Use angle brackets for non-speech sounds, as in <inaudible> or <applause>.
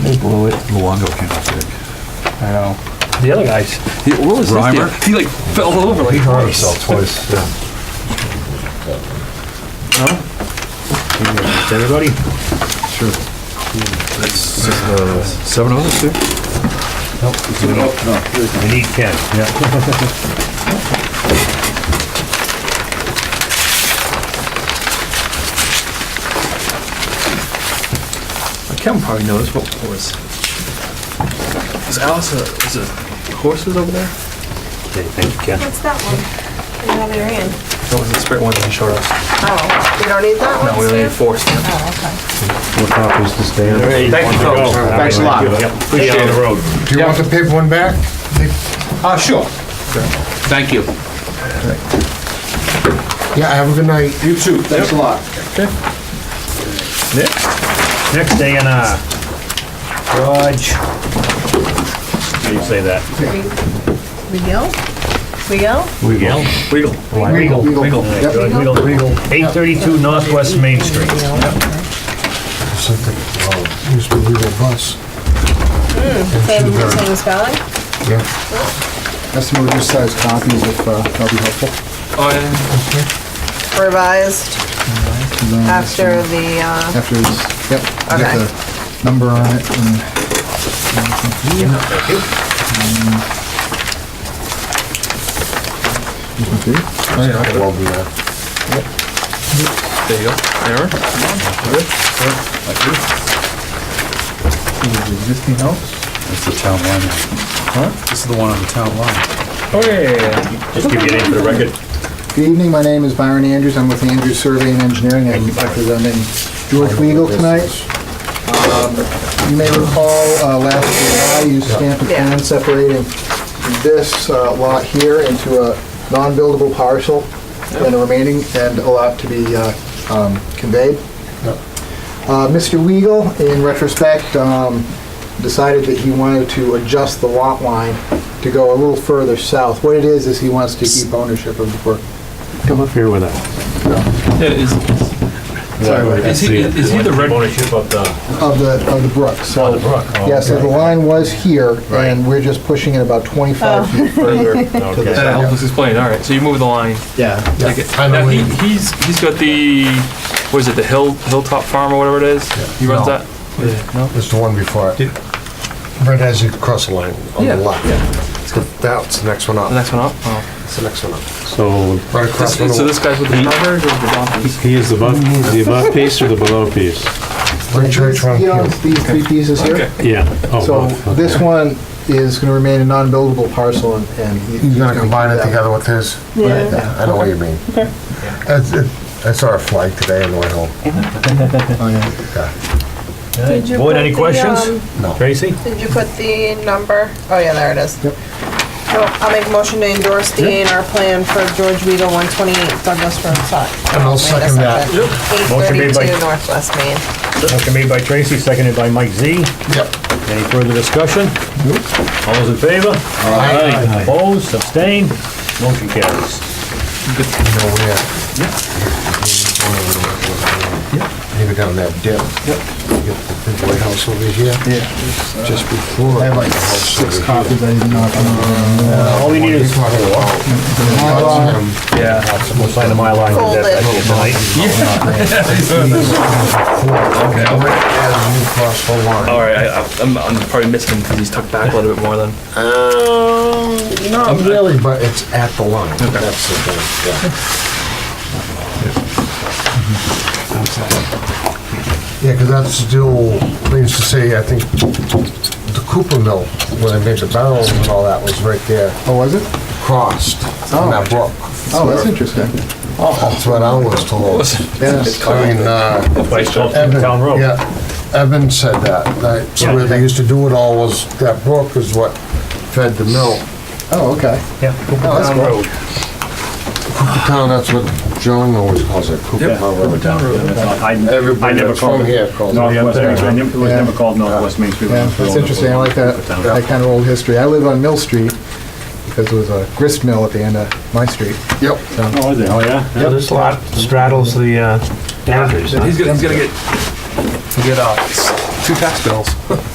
They blew it. Luongo came up big. I know. The other guys, He, what was this deal? Reimer? He like fell over like He hurt twice. himself twice, yeah. everybody? Sure. That's uh, seven of us here? We need Ken. Yeah. Kevin probably knows what was. Is Alice a, is it horses over there? Okay, thank you, Ken. What's that one? We have it in. That was the spirit one that he showed us. Oh, we don't need that No, one? we only had Stan? four stamps. Oh, What copies to stay on? Thank you, folks. Thanks a lot. Appreciate it. road. Do you want the paper one back? Ah, sure. Thank you. Yeah, have a good night. You too, thanks a lot. Next day in, uh, Raj. How do you say that? okay. We we go? We go? Regal? Wiggle. Regal. Regal. Regal. Yep. Regal. Regal. 832 Northwest Main Street. Something, uh, oh, used to be legal bus. Same, same spelling? Yeah. Estimate reduced size copies if uh, that'll be helpful. Oh, yeah. Revised And then after the, uh, After this, yep. Okay. Get the number on it and. Thank you. Oh, yeah, I could well do that. There you go. Aaron? Is it existing house? That's the town line. Huh? This is the one on the town line. Oh, Just give your name for the record. Good evening, my name is Byron Andrews, I'm with Andrews Survey and Engineering, I'm representing George Weigel tonight. Um, You may recall, uh, last July, you stamped a plan separating this uh, lot here into a non-buildable parcel and a remaining, and a lot to be uh, um, conveyed. Uh, Mr. Weigel, in retrospect, um, decided that he wanted to adjust the lot line to go a little further south. What it is, is he wants to keep ownership of the work. Come up here with us. Yeah, is, Sorry about that. is he, is he the red? Ownership of the, Of the, of the brook, so. of the brook. oh, Yeah, <laughs> so the line was here, and we're just pushing it about 25 feet further to the Okay. That helps south. us explain. All right, so you move the line. Yeah. Take it. Now, he, he's, he's got the, what is it, the Hill, Hilltop Farm or whatever it is? He runs No. that? No? It's the one before it. Right as you cross the line on Yeah, the left. It's got- That's the next one The up. next one up? Oh. It's the next one up. So Right across from So the, this guy's with the farmers or the donkeys? he is the above, the above piece or the below piece? the church one He here. owns these three pieces Okay. here. Yeah. Oh, So both, okay. this one is going to remain a non-buildable parcel, and- and. he- You're gonna he's combine keep it that. together with his? Yeah. I know what you mean. Okay. I saw a flag today on the way home. Oh, yeah. Did you Boyd, put any the, questions? um, No. Tracy? Did you put the number? Oh, yeah, there it is. Yep. So I'll make a motion to endorse the A and R plan for George Weigel, 128 Douglas Road, sorry. And I'll second that. Motion made by- 832 Northwest Main. Motion made by Tracy, seconded by Mike Z. Yep. Any further discussion? All those in favor? Aye. Opposed, abstained, motion carries. You know where? Maybe down that dip. Yep. The big White House over here. Yeah. Just before. I have like six copies I didn't knock on. Uh, All we need is, Four Yeah. we'll sign the Mylar and get that back here tonight. right as you cross the line. All right, I, I- I'm, I'm probably missing him because he's tucked back a little bit more than. Um, not really, but it's at the line. Okay. That's the thing, yeah. Yeah, because that's still, they used to say, I think, the Cooper Mill, where they made the barrels and all that, was right there, Oh, was it? crossed on that brook. Oh, that's interesting. That's what I was told. Yes. I mean, uh, By Charles Evan, Town Road. yeah, Evan said that, that, so where they used to do it all was, that brook is what fed the mill. Oh, okay. Yeah. Oh, that's Town cool. Road. Town, Oh, that's what John always calls it, Cooper Town Road. I I Everybody never that's called from it here calls it. Northwest, I never- it was Yeah. never called Northwest Main Street. Yeah, that's interesting, I like that, that kind of old history. I live on Mill Street, because it was a grist mill at the end of my street. Yep. Oh, is it? Oh, yeah? Yeah, this lot straddles the uh, boundaries. huh? He's gonna, he's gonna get, he'll get, uh, s- two tax bills.